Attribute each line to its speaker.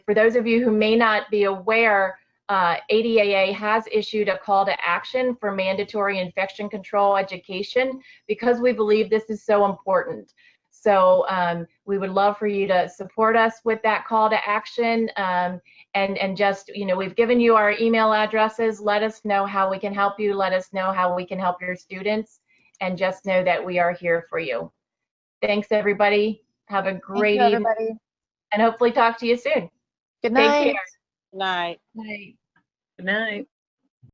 Speaker 1: For those of you who may not be aware, uh, ADAA has issued a call to action for mandatory infection control education because we believe this is so important. So um, we would love for you to support us with that call to action. um, and, and just, you know, we've given you our email addresses. Let us know how we can help you. Let us know how we can help your students. And just know that we are here for you. Thanks, everybody. Have a
Speaker 2: Thank
Speaker 1: great
Speaker 2: you,
Speaker 1: evening
Speaker 2: everybody.
Speaker 1: and hopefully talk to you soon. Take
Speaker 2: Good night.
Speaker 1: care.
Speaker 3: Night.
Speaker 1: Bye.
Speaker 4: Good night.